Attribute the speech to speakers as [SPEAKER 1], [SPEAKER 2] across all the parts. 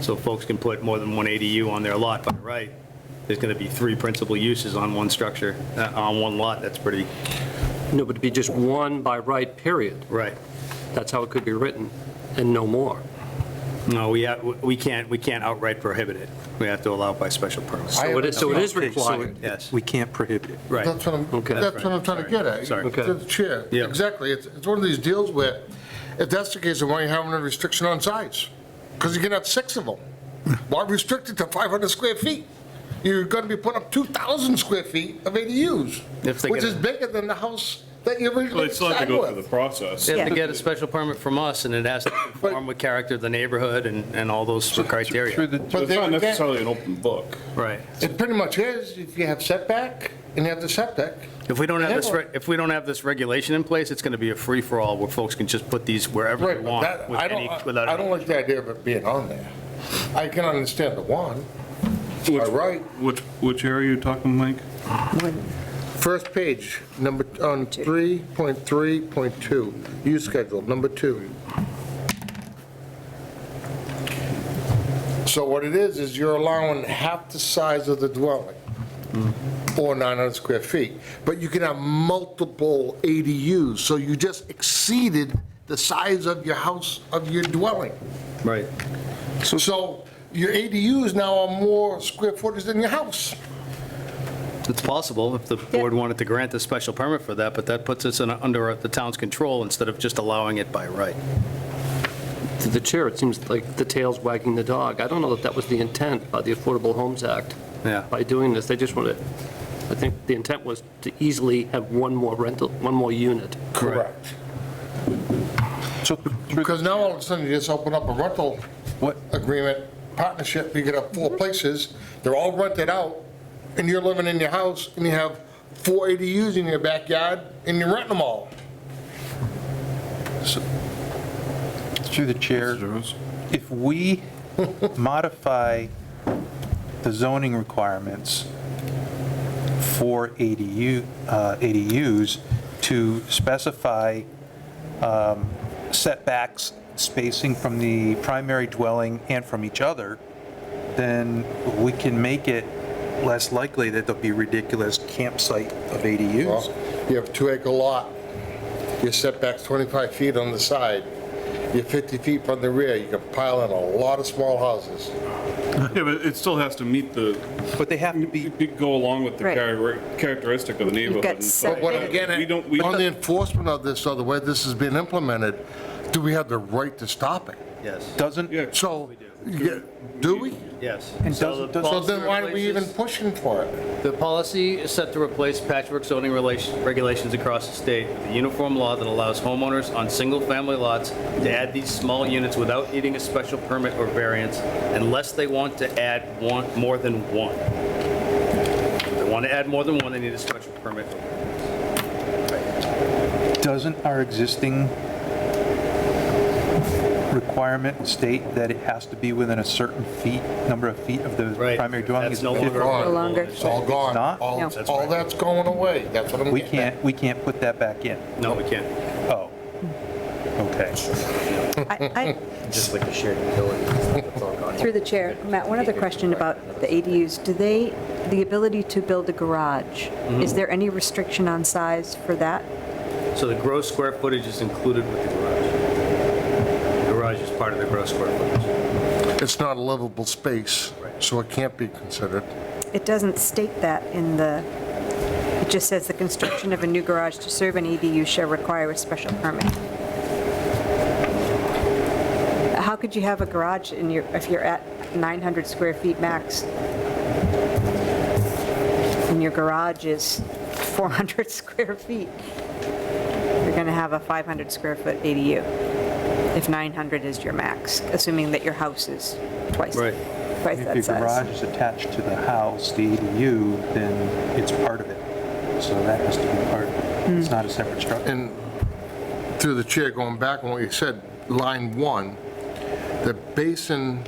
[SPEAKER 1] So folks can put more than one ADU on their lot, but right, there's going to be three principal uses on one structure, uh, on one lot, that's pretty,
[SPEAKER 2] No, but it'd be just one by right, period.
[SPEAKER 1] right.
[SPEAKER 2] That's how it could be written, and no more.
[SPEAKER 1] No, we, ha- we can't, we can't outright prohibit it. We have to allow by special permit.
[SPEAKER 2] So it is- so it is
[SPEAKER 3] Okay, so it-
[SPEAKER 2] required.
[SPEAKER 1] Yes.
[SPEAKER 3] We can't prohibit it.
[SPEAKER 1] Right.
[SPEAKER 4] That's what I'm,
[SPEAKER 2] Okay.
[SPEAKER 4] that's what I'm trying to get at.
[SPEAKER 1] Sorry.
[SPEAKER 2] Okay.
[SPEAKER 4] To the chair.
[SPEAKER 1] Yeah.
[SPEAKER 4] Exactly. It's, it's one of these deals where, if that's the case, then why are you having a restriction on size? Because you're gonna have six of them. Why restrict it to 500 square feet? You're gonna be putting up 2,000 square feet of ADUs,
[SPEAKER 5] If they
[SPEAKER 4] which
[SPEAKER 5] get
[SPEAKER 4] is
[SPEAKER 5] a-
[SPEAKER 4] bigger than the house that you
[SPEAKER 5] Well,
[SPEAKER 4] originally
[SPEAKER 5] they still have to
[SPEAKER 4] signed
[SPEAKER 5] go through
[SPEAKER 4] with.
[SPEAKER 5] the process.
[SPEAKER 1] They have to get a special permit from us, and it has to conform with character of the neighborhood and, and all those
[SPEAKER 5] Through
[SPEAKER 1] criteria.
[SPEAKER 5] the-
[SPEAKER 4] But
[SPEAKER 5] It's
[SPEAKER 4] they-
[SPEAKER 5] not necessarily an open book.
[SPEAKER 1] Right.
[SPEAKER 4] It pretty much is, if you have setback, and you have the setback.
[SPEAKER 1] If we don't have this, re- if we don't have this regulation in place, it's going to be a free-for-all where folks can just put these wherever they
[SPEAKER 4] Right, but
[SPEAKER 1] want
[SPEAKER 4] that,
[SPEAKER 1] with
[SPEAKER 4] I
[SPEAKER 1] any,
[SPEAKER 4] don't,
[SPEAKER 1] without.
[SPEAKER 4] I don't like the idea of it being on there. I can understand the one,
[SPEAKER 5] Which-
[SPEAKER 4] All right.
[SPEAKER 5] Which, which area are you talking, Mike?
[SPEAKER 4] First page, number, on 3.3.2, use schedule, number two. So what it is, is you're allowing half the size of the dwelling, or 900 square feet, but you can have multiple ADUs, so you just exceeded the size of your house, of your dwelling.
[SPEAKER 1] Right.
[SPEAKER 4] So your ADUs now are more square footage than your house.
[SPEAKER 1] It's possible if the board wanted to grant a special permit for that, but that puts us in, under the town's control instead of just allowing it by right.
[SPEAKER 2] To the chair, it seems like the tail's wagging the dog. I don't know that that was the intent by the Affordable Homes Act.
[SPEAKER 1] Yeah.
[SPEAKER 2] By doing this, they just wanted, I think the intent was to easily have one more rental, one more unit.
[SPEAKER 4] Correct.
[SPEAKER 3] So
[SPEAKER 4] Because now all of a sudden, you just open up a rental
[SPEAKER 3] What?
[SPEAKER 4] agreement, partnership, you get up four places, they're all rented out, and you're living in your house, and you have four ADUs in your backyard, and you're renting them all.
[SPEAKER 3] through the chair, if we modify the zoning requirements for ADU, uh, ADUs to specify um, setbacks, spacing from the primary dwelling and from each other, then we can make it less likely that there'll be ridiculous campsite of ADUs.
[SPEAKER 4] You have a two-acre lot, your setback's 25 feet on the side, you're 50 feet from the rear, you can pile in a lot of small houses.
[SPEAKER 5] Yeah, but it still has to meet the,
[SPEAKER 3] But they have to be
[SPEAKER 5] you could go along with the
[SPEAKER 6] Right.
[SPEAKER 5] charac- characteristic of the neighborhood. and stuff
[SPEAKER 4] But what,
[SPEAKER 5] like that.
[SPEAKER 4] again,
[SPEAKER 5] We don't, we,
[SPEAKER 4] on the enforcement of this, or the way this has been implemented, do we have the right to stop it?
[SPEAKER 1] Yes.
[SPEAKER 3] doesn't,
[SPEAKER 5] yeah,
[SPEAKER 4] So, yeah, do we?
[SPEAKER 1] Yes.
[SPEAKER 3] And
[SPEAKER 1] So
[SPEAKER 3] doesn't-
[SPEAKER 1] the
[SPEAKER 3] doesn't-
[SPEAKER 4] So
[SPEAKER 1] policy
[SPEAKER 4] then why are we even
[SPEAKER 1] replaces-
[SPEAKER 4] pushing for it?
[SPEAKER 1] The policy is set to replace patchwork zoning relation- regulations across the state with a uniform law that allows homeowners on single-family lots to add these small units without needing a special permit or variance unless they want to add one, more than one. If they want to add more than one, they need a special permit.
[SPEAKER 3] Doesn't our existing requirement state that it has to be within a certain feet, number of feet of the
[SPEAKER 1] Right.
[SPEAKER 3] primary dwelling?
[SPEAKER 1] That's
[SPEAKER 3] is
[SPEAKER 1] no
[SPEAKER 3] 50?
[SPEAKER 1] longer.
[SPEAKER 4] No
[SPEAKER 6] longer.
[SPEAKER 4] It's all gone.
[SPEAKER 3] not?
[SPEAKER 4] All-
[SPEAKER 6] No.
[SPEAKER 1] That's
[SPEAKER 4] All
[SPEAKER 1] right.
[SPEAKER 4] that's going away. That's what I'm
[SPEAKER 3] We
[SPEAKER 4] getting at.
[SPEAKER 3] can't, we can't put that back in.
[SPEAKER 1] No, we can't,
[SPEAKER 3] Oh, okay.
[SPEAKER 6] I,
[SPEAKER 1] just like the shared utility. That's all
[SPEAKER 6] I-
[SPEAKER 1] gone.
[SPEAKER 6] through the chair, Matt, one other question about the ADUs. Do they, the ability to build a garage, is there any restriction on size for that?
[SPEAKER 1] So the gross square footage is included with the garage. The garage is part of the gross square footage.
[SPEAKER 4] It's not a livable space, so it can't be considered.
[SPEAKER 6] It doesn't state that in the, it just says the construction of a new garage to serve an ADU shall require a special permit. How could you have a garage in your, if you're at 900 square feet max? And your garage is 400 square feet? You're going to have a 500 square foot ADU if 900 is your max, assuming that your house is twice,
[SPEAKER 1] Right.
[SPEAKER 6] twice
[SPEAKER 3] If your
[SPEAKER 6] that size.
[SPEAKER 3] garage is attached to the house, the ADU, then it's part of it. So that has to be part of it. It's not a separate structure.
[SPEAKER 4] And through the chair, going back on what you said, line one, the basin,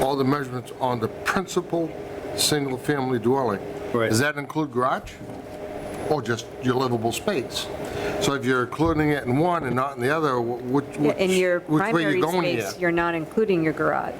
[SPEAKER 4] all the measurements on the principal single-family dwelling.
[SPEAKER 1] Right.
[SPEAKER 4] Does that include garage? Or just your livable space? So if you're including it in one and not in the other, wh- which,
[SPEAKER 6] Yeah,
[SPEAKER 4] which
[SPEAKER 6] In your
[SPEAKER 4] which way you
[SPEAKER 6] primary
[SPEAKER 4] going here?
[SPEAKER 6] space, you're not including your garage.